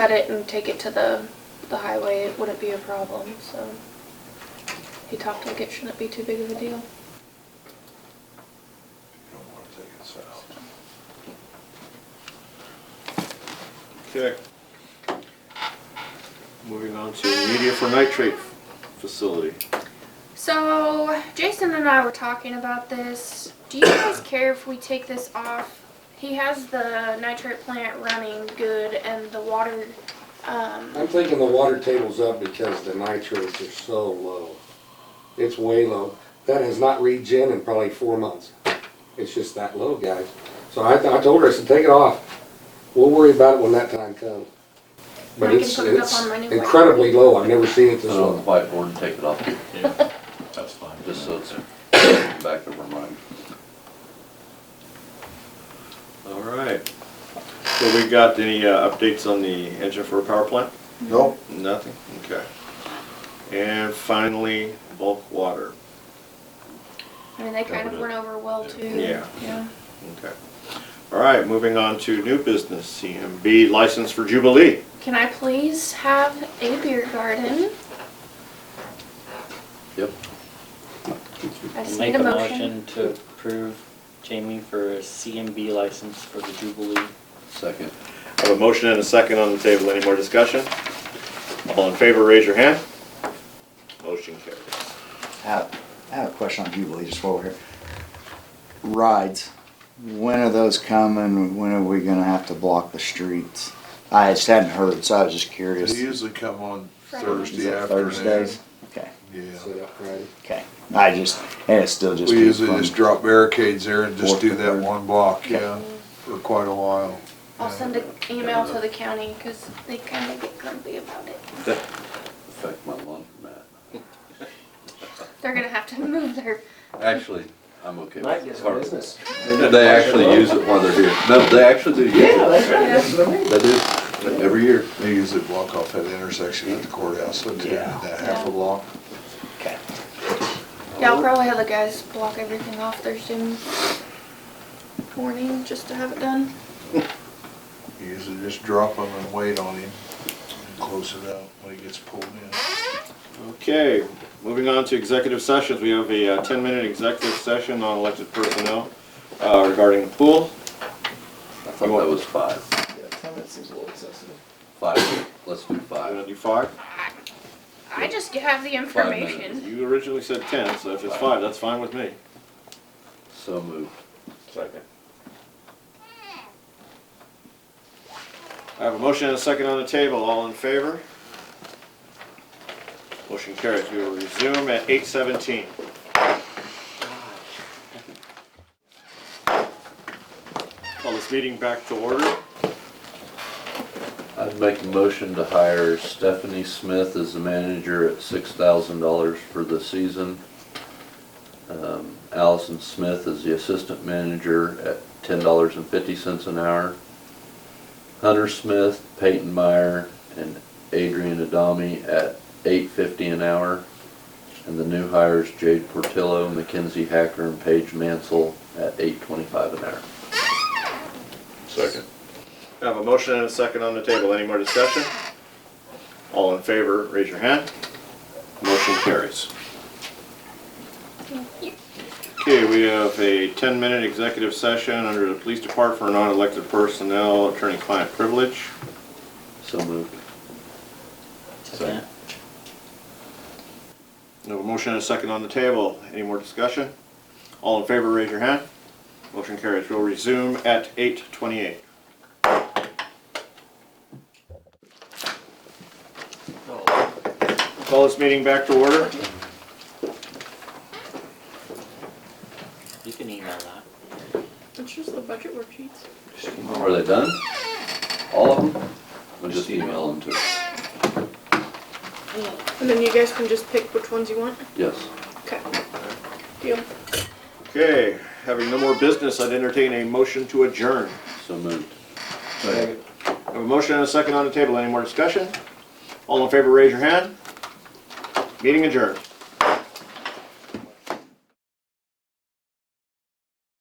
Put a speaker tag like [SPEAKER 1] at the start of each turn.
[SPEAKER 1] cut it and take it to the, the highway, it wouldn't be a problem, so. He talked like it shouldn't be too big of a deal.
[SPEAKER 2] You don't wanna take it south.
[SPEAKER 3] Okay. Moving on to media for nitrate facility.
[SPEAKER 1] So Jason and I were talking about this. Do you guys care if we take this off? He has the nitrate plant running good and the water, um,
[SPEAKER 4] I'm thinking the water table's up because the nitrates are so low. It's way low. That has not regen in probably four months. It's just that low, guys. So I, I told her, I said, take it off. We'll worry about it when that time comes.
[SPEAKER 1] I
[SPEAKER 4] But
[SPEAKER 1] can
[SPEAKER 4] it's,
[SPEAKER 1] put it up
[SPEAKER 4] it's
[SPEAKER 1] on my new one.
[SPEAKER 4] incredibly low. I've never seen it
[SPEAKER 5] Put
[SPEAKER 4] this
[SPEAKER 5] it on the
[SPEAKER 4] low.
[SPEAKER 5] whiteboard and take it off,
[SPEAKER 3] Yeah, that's fine.
[SPEAKER 5] just so it's back of our mind.
[SPEAKER 3] All right. So we got any uh, updates on the engine for a power plant?
[SPEAKER 2] Nope,
[SPEAKER 3] Nothing? Okay. And finally, bulk water.
[SPEAKER 1] I mean, they kind of
[SPEAKER 2] Covered it.
[SPEAKER 1] went over well too.
[SPEAKER 3] Yeah.
[SPEAKER 1] Yeah.
[SPEAKER 3] Okay. All right, moving on to new business, CMB license for Jubilee.
[SPEAKER 1] Can I please have a beer garden?
[SPEAKER 5] Yep.
[SPEAKER 1] I just
[SPEAKER 6] Make
[SPEAKER 1] need
[SPEAKER 6] a
[SPEAKER 1] a motion.
[SPEAKER 6] motion to approve Jamie for a CMB license for the Jubilee.
[SPEAKER 5] Second.
[SPEAKER 3] I have a motion and a second on the table. Any more discussion? All in favor, raise your hand. Motion carries.
[SPEAKER 7] I have, I have a question on Jubilee just while we're here. Rides, when are those coming? When are we gonna have to block the streets? I just hadn't heard, so I was just
[SPEAKER 2] they
[SPEAKER 7] curious. Is
[SPEAKER 2] usually come on
[SPEAKER 1] Friday.
[SPEAKER 2] Thursday
[SPEAKER 7] it
[SPEAKER 2] afternoon.
[SPEAKER 7] Thursdays? Okay,
[SPEAKER 2] Yeah.
[SPEAKER 4] Sit up, right?
[SPEAKER 7] okay. I just, and it's still just.
[SPEAKER 2] We usually
[SPEAKER 7] from-
[SPEAKER 2] just drop barricades there and just
[SPEAKER 7] Fourth
[SPEAKER 2] do
[SPEAKER 7] to
[SPEAKER 2] that
[SPEAKER 7] third.
[SPEAKER 2] one block,
[SPEAKER 7] Yeah.
[SPEAKER 2] yeah, for quite a while.
[SPEAKER 1] I'll send an email to the county because they kind of get grumpy about it.
[SPEAKER 5] Affect my lawn, Matt.
[SPEAKER 1] They're gonna have to move their,
[SPEAKER 5] Actually, I'm okay with it. Or-
[SPEAKER 8] business.
[SPEAKER 5] They actually use it while they're here. No, they actually do use
[SPEAKER 8] Yeah,
[SPEAKER 5] it.
[SPEAKER 8] that's right, that's what I mean.
[SPEAKER 5] They do, every year.
[SPEAKER 2] They usually block off that intersection at the courthouse, so they did
[SPEAKER 7] Yeah.
[SPEAKER 2] that half a block.
[SPEAKER 7] Okay.
[SPEAKER 1] yeah, I'll probably have the guys block everything off Thursday morning just to have it done.
[SPEAKER 2] You Usually just drop them and wait on him, and close it out when he gets pulled in.
[SPEAKER 3] Okay, moving on to executive sessions. We have a uh, 10-minute executive session on elected personnel uh, regarding the pool.
[SPEAKER 5] I thought that was five.
[SPEAKER 8] Yeah, ten minutes seems a little excessive.
[SPEAKER 5] Five, let's do
[SPEAKER 3] I'm
[SPEAKER 5] five.
[SPEAKER 3] gonna do five.
[SPEAKER 1] I just have the information.
[SPEAKER 3] You originally said 10, so if it's five, that's fine with me.
[SPEAKER 5] So moved.
[SPEAKER 3] Second. I have a motion and a second on the table. All in favor? Motion carries. We will resume at 8:17. Call this meeting back to order.
[SPEAKER 5] I'd make a motion to hire Stephanie Smith as the manager at six thousand dollars for the season. Um, Allison Smith as the assistant manager at ten dollars and fifty cents an hour. Hunter Smith, Peyton Meyer, and Adrian Adami at eight fifty an hour. And the new hires Jade Portillo, Mackenzie Hacker, and Paige Mansell at eight twenty-five an hour. Second.
[SPEAKER 3] I have a motion and a second on the table. Any more discussion? All in favor, raise your hand. Motion carries. Okay, we have a 10-minute executive session under the police department for non-elected personnel, attorney-client privilege.
[SPEAKER 5] So moved.
[SPEAKER 6] Second.
[SPEAKER 3] We have a motion and a second on the table. Any more discussion? All in favor, raise your hand. Motion carries. We'll resume at 8:28. Call this meeting back to order.
[SPEAKER 6] You can email that.
[SPEAKER 1] It's just the budget worksheets.
[SPEAKER 5] Are they done? All of them? Or just email them to,
[SPEAKER 1] And then you guys can just pick which ones you want.
[SPEAKER 5] yes.
[SPEAKER 1] Okay. Deal.
[SPEAKER 3] Okay, having no more business, I'd entertain a motion to adjourn.
[SPEAKER 5] So moved.
[SPEAKER 3] I have a motion and a second on the table. Any more discussion? All in favor, raise your hand. Meeting adjourned.